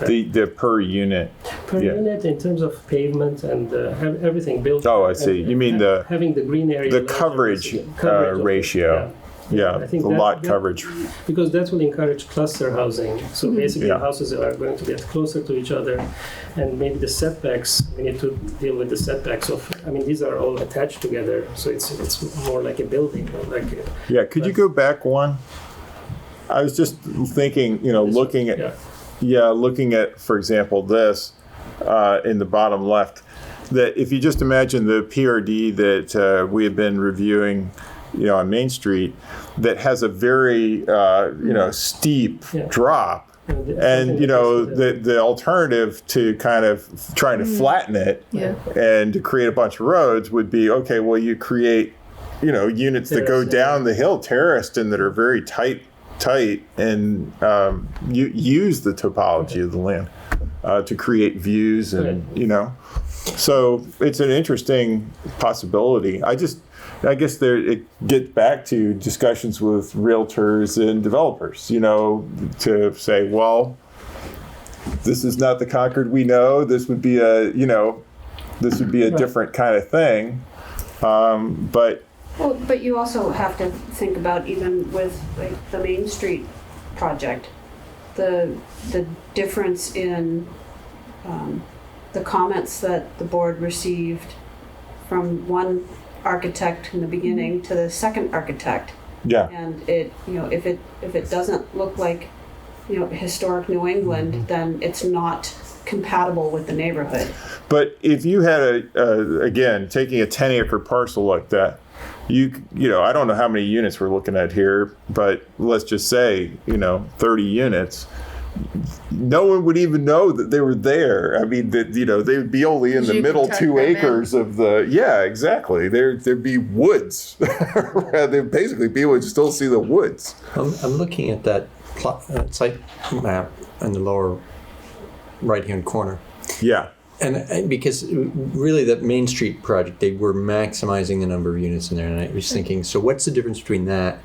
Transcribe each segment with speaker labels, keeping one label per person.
Speaker 1: The, the per unit,
Speaker 2: per
Speaker 1: Yeah.
Speaker 2: unit in terms of pavement and uh, have everything built.
Speaker 1: Oh, I see. You mean the-
Speaker 2: having the green area
Speaker 1: the
Speaker 2: larger
Speaker 1: coverage
Speaker 2: is-
Speaker 1: uh,
Speaker 2: coverage of-
Speaker 1: ratio. Yeah,
Speaker 2: I
Speaker 1: the
Speaker 2: think that-
Speaker 1: lot
Speaker 2: that-
Speaker 1: coverage.
Speaker 2: yeah. because that will encourage cluster housing. So basically,
Speaker 1: Yeah.
Speaker 2: houses are going to get closer to each other, and maybe the setbacks. We need to deal with the setbacks of. I mean, these are all attached together, so it's it's more like a building, like a,
Speaker 1: Yeah, could you go back one? I was just thinking, you know, looking at,
Speaker 2: yeah.
Speaker 1: Yeah, looking at, for example, this uh, in the bottom left, that if you just imagine the PRD that uh, we have been reviewing, you know, on Main Street, that has a very, uh, you know, steep
Speaker 2: Yeah.
Speaker 1: drop.
Speaker 2: And the-
Speaker 1: And you know
Speaker 2: something that
Speaker 1: the the alternative to kind of trying to flatten it
Speaker 3: Yeah.
Speaker 1: and to create a bunch of roads would be okay. Well, you create you know units that go
Speaker 2: Terraced, yeah.
Speaker 1: down the hill terraced and that are very tight tight and um, you use the topology of the land uh, to create views and you know so it's an interesting possibility i just i guess there it gets back to discussions with realtors and developers you know to say well this is not the concord we know this would be a you know this would be a different kind of thing um, but
Speaker 4: Well, but you also have to think about even with like the Main Street project, the, the difference in, um, the comments that the board received from one architect in the beginning to the second architect.
Speaker 1: yeah
Speaker 4: And it, you know, if it, if it doesn't look like, you know, historic New England, then it's not compatible with the neighborhood.
Speaker 1: But if you had a, a again taking a ten acre parcel like that, you c- you know I don't know how many units we're looking at here, but let's just say you know thirty units. No one would even know that they were there. I mean, that you know they would be only in the
Speaker 3: You could
Speaker 1: middle
Speaker 3: tuck
Speaker 1: two
Speaker 3: them in.
Speaker 1: acres of the yeah exactly. There there'd be woods. There'd basically people would still see the woods.
Speaker 5: I'm, I'm looking at that plot, uh, site map in the lower right-hand corner.
Speaker 1: Yeah.
Speaker 5: And, and because uh, really that Main Street project, they were maximizing the number of units in there. And I was thinking, so what's the difference between that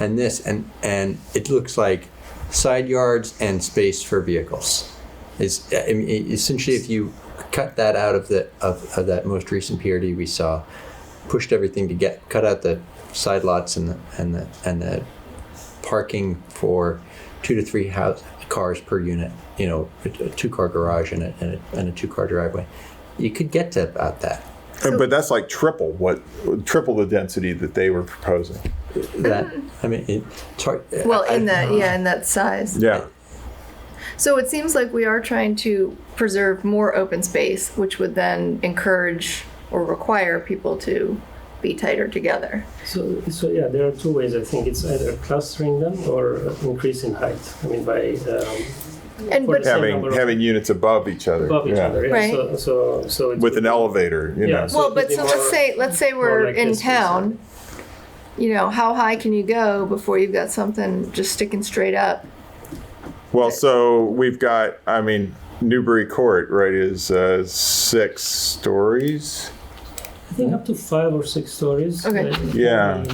Speaker 5: and this? And, and it looks like side yards and space for vehicles. Is, uh, I mean, e-, essentially if you cut that out of the, of, of that most recent PRD we saw, pushed everything to get, cut out the side lots and the, and the, and the parking for two to three house, cars per unit, you know, a, a two car garage and a, and a, and a two car driveway. You could get to about that.
Speaker 1: And, but that's like triple what triple the density that they were proposing.
Speaker 5: That I mean, it, it's hard.
Speaker 3: Mm-hmm. Well,
Speaker 5: I-
Speaker 3: in
Speaker 5: I-
Speaker 3: that, yeah, in that size.
Speaker 1: Yeah.
Speaker 3: So it seems like we are trying to preserve more open space, which would then encourage or require people to be tighter together.
Speaker 2: So, so yeah, there are two ways. I think it's either clustering them or increase in height. I mean, by um,
Speaker 3: And
Speaker 2: For
Speaker 3: but
Speaker 2: example-
Speaker 1: having having units above each other.
Speaker 2: above each
Speaker 1: yeah.
Speaker 2: other. Yeah.
Speaker 3: Right.
Speaker 2: So, so, so it's
Speaker 1: with an elevator, you know.
Speaker 2: Yeah.
Speaker 3: well,
Speaker 2: it'd
Speaker 3: but
Speaker 2: be
Speaker 3: so let's
Speaker 2: more-
Speaker 3: say let's say we're
Speaker 2: like
Speaker 3: in
Speaker 2: this,
Speaker 3: town. You know, how high can you go before you've got something just sticking straight up?
Speaker 1: Well, so we've got, I mean, Newbury Court, right, is uh, six stories.
Speaker 2: I think up to five or six stories.
Speaker 3: Okay.
Speaker 2: uh,
Speaker 1: Yeah.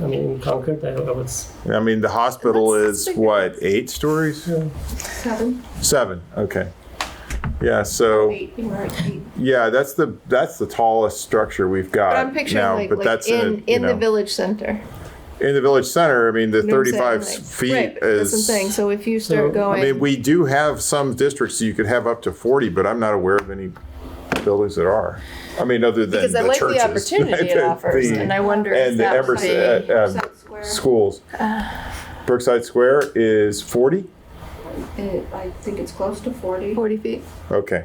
Speaker 2: I mean, in Concord, I, I would. s-
Speaker 1: I mean, the hospital
Speaker 3: That's-
Speaker 1: is
Speaker 3: that's big.
Speaker 1: what, eight stories?
Speaker 3: Seven.
Speaker 1: Seven, okay. Yeah, so
Speaker 4: Eight, you were at eight.
Speaker 1: yeah, that's the that's the tallest structure we've got
Speaker 3: But I'm picturing
Speaker 1: now.
Speaker 3: like,
Speaker 1: Uh, but
Speaker 3: like
Speaker 1: that's
Speaker 3: in
Speaker 1: in,
Speaker 3: in,
Speaker 1: a, you
Speaker 3: the
Speaker 1: know,
Speaker 3: village center.
Speaker 1: in the village center. I mean, the
Speaker 3: You know what I'm
Speaker 1: 35
Speaker 3: saying? Like-
Speaker 1: feet
Speaker 3: right, but
Speaker 1: is.
Speaker 3: that's the thing. So if you start
Speaker 2: So,
Speaker 3: going,
Speaker 1: I mean, we do have some districts you could have up to 40, but I'm not aware of any buildings that are. I mean, other than
Speaker 3: because
Speaker 1: the
Speaker 3: I like
Speaker 1: churches.
Speaker 3: the opportunity it
Speaker 1: The-
Speaker 3: offers,
Speaker 1: the-
Speaker 3: and I wonder if
Speaker 1: and the
Speaker 3: that would
Speaker 1: Emerson
Speaker 3: be- Uh.
Speaker 1: uh, um,
Speaker 4: Percent square.
Speaker 1: schools. Brookside Square is 40.
Speaker 4: It- I think it's close to forty.
Speaker 3: 40 feet.
Speaker 1: Okay,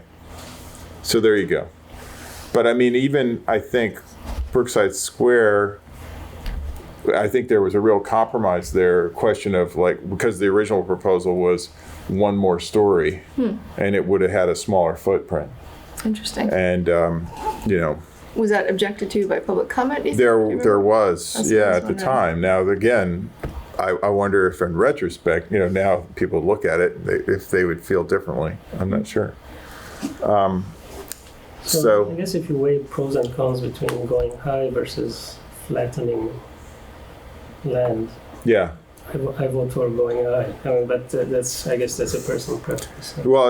Speaker 1: so there you go. But I mean, even I think Brookside Square. I think there was a real compromise there, question of like because the original proposal was one more story,
Speaker 3: Hmm.
Speaker 1: and it would have had a smaller footprint.
Speaker 3: Interesting.
Speaker 1: and um, you know
Speaker 3: Was that objected to by public comment? do you think? Do you
Speaker 1: there
Speaker 3: remember?
Speaker 1: there was
Speaker 3: That's
Speaker 1: yeah
Speaker 3: what I
Speaker 1: at the
Speaker 3: wondering.
Speaker 1: time now again I, I wonder if in retrospect you know now people look at it they, if they would feel differently i'm not sure um,
Speaker 2: So, I
Speaker 1: so
Speaker 2: guess if you weigh pros and cons between going high versus flattening land,
Speaker 1: yeah
Speaker 2: I vo- I vote for going high. I mean, but uh, that's I guess that's a personal preference.
Speaker 1: well